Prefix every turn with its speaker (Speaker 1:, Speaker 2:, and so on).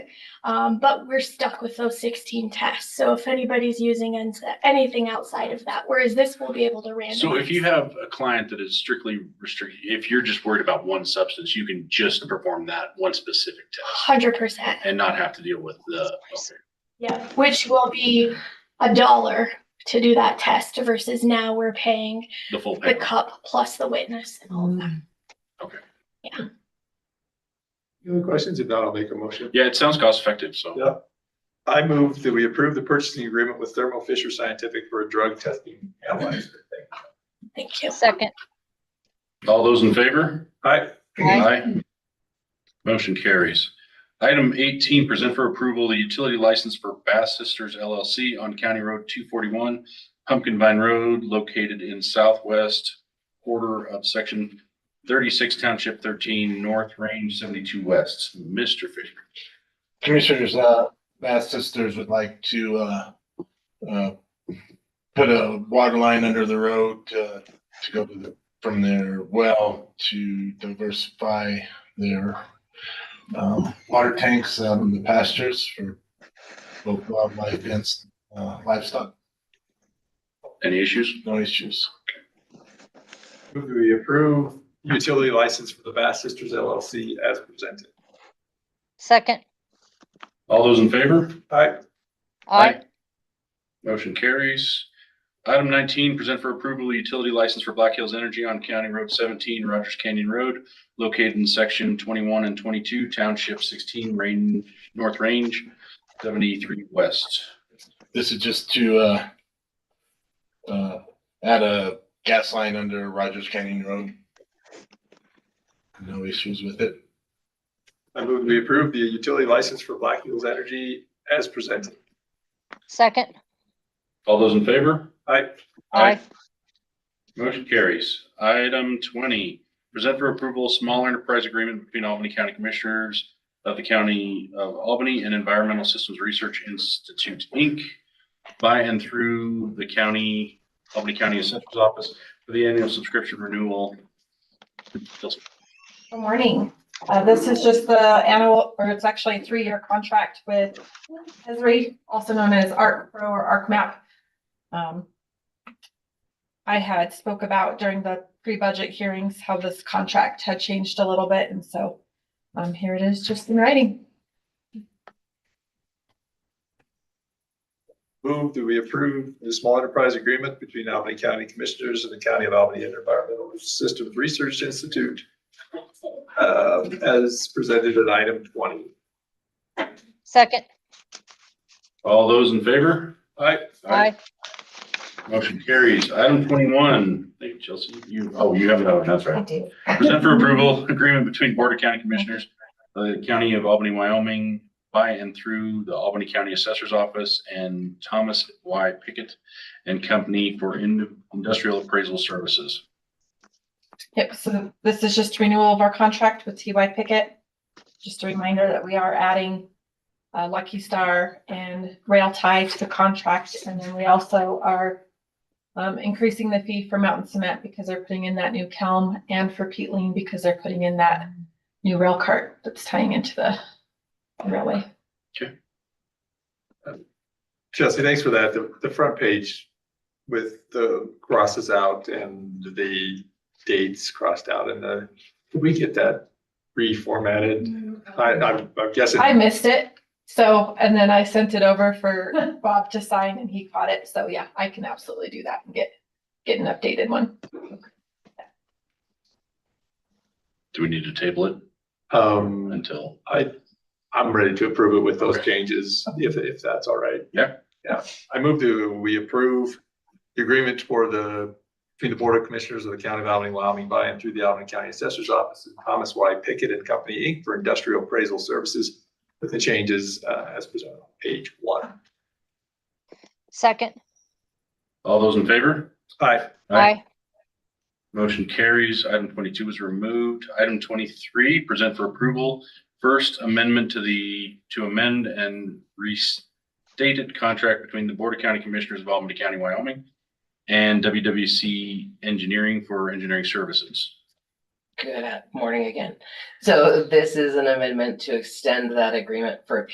Speaker 1: Um, but we're stuck with those sixteen tests. So if anybody's using ens- anything outside of that, whereas this will be able to randomize.
Speaker 2: So if you have a client that is strictly restricted, if you're just worried about one substance, you can just perform that one specific test
Speaker 1: Hundred percent,
Speaker 2: and not have to deal with the.
Speaker 1: yeah, which will be a dollar to do that test versus now we're paying
Speaker 2: The full
Speaker 1: the
Speaker 2: panel.
Speaker 1: cup plus the witness and all of that.
Speaker 3: Any other questions? If not, I'll make a motion.
Speaker 2: Yeah, it sounds cost effective, so.
Speaker 3: Yeah. I move that we approve the purchasing agreement with Thermo Fisher Scientific for a drug testing analyzer.
Speaker 1: Thank you.
Speaker 4: Second.
Speaker 2: All those in favor?
Speaker 3: Hi,
Speaker 4: Aye.
Speaker 2: Motion carries. Item eighteen, present for approval, the utility license for Bass Sisters LLC on County Road two forty-one, Pumpkin Vine Road, located in southwest quarter of section thirty-six Township thirteen, North Range seventy-two West. Mr. Fisher.
Speaker 5: Commissioners, uh, Bass Sisters would like to, uh, uh, put a water line under the road, uh, to go to the, from their well to diversify their, um, water tanks out in the pastures for both wildlife and, uh, livestock,
Speaker 2: Any issues?
Speaker 5: no issues.
Speaker 3: move that we approve utility license for the Bass Sisters LLC as presented.
Speaker 4: Second.
Speaker 2: All those in favor?
Speaker 3: Hi,
Speaker 4: Aye.
Speaker 2: Motion carries. Item nineteen, present for approval, the utility license for Black Hills Energy on County Road seventeen, Rogers Canyon Road, located in section twenty-one and twenty-two, Township sixteen, Rain, North Range, seventy-three West.
Speaker 5: This is just to, uh, uh, add a gas line under Rogers Canyon Road. No issues with it.
Speaker 3: I move that we approve the utility license for Black Hills Energy as presented.
Speaker 4: Second.
Speaker 2: All those in favor?
Speaker 3: Hi,
Speaker 2: Aye.
Speaker 4: Aye.
Speaker 2: Motion carries. Item twenty, present for approval, small enterprise agreement between Albany County Commissioners of the County of Albany and Environmental Systems Research Institute, Inc. by and through the county, Albany County Assessor's Office for the annual subscription renewal.
Speaker 6: Good morning. Uh, This is just the annual, or it's actually a three-year contract with Esri, also known as Art Pro or ArcMap. Um, I had spoke about during the pre-budget hearings how this contract had changed a little bit, and so um, here it is, just in writing.
Speaker 3: move that we approve the small enterprise agreement between Albany County Commissioners and the County of Albany Environmental Systems Research Institute uh, as presented at item twenty.
Speaker 4: Second.
Speaker 2: All those in favor?
Speaker 3: Hi,
Speaker 4: Aye.
Speaker 2: Motion carries. Item twenty-one, thank you, Chelsea. You, oh, you have another one, that's right.
Speaker 6: do.
Speaker 2: Present for approval, agreement between Board of County Commissioners, of the County of Albany, Wyoming, by and through the Albany County Assessor's Office and Thomas Y. Pickett and Company for in- Industrial Appraisal Services.
Speaker 6: Yep, so this is just renewal of our contract with TY Pickett. Just a reminder that we are adding uh, Lucky Star and Rail Tie to the contract, and then we also are um, increasing the fee for Mountain Cement because they're putting in that new kiln and for Peatling because they're putting in that new rail cart that's tying into the railway.
Speaker 3: Chelsea, thanks for that. The, the front page with the crosses out and the dates crossed out and the, did we get that reformatted? I, I'm I'm guessing.
Speaker 6: I missed it, so, and then I sent it over for Bob to sign and he caught it, so yeah, I can absolutely do that and get, get an updated one.
Speaker 2: Do we need to table it
Speaker 3: Um,
Speaker 2: until?
Speaker 3: I, I'm ready to approve it with those
Speaker 2: Okay.
Speaker 3: changes, if, if that's all right.
Speaker 2: Yeah.
Speaker 3: Yeah, I move to, we approve the agreement for the, between the Board of Commissioners of the County of Albany, Wyoming, by and through the Albany County Assessor's Office, and Thomas Y. Pickett and Company, Inc. for industrial appraisal services with the changes, uh, as presented on page one.
Speaker 4: Second.
Speaker 2: All those in favor?
Speaker 3: Aye.
Speaker 4: Aye.
Speaker 2: Motion carries. Item twenty-two is removed. Item twenty-three, present for approval. First amendment to the, to amend and restated contract between the Board of County Commissioners of Albany County, Wyoming and WWC Engineering for engineering services.
Speaker 7: Good morning again. So this is an amendment to extend that agreement for a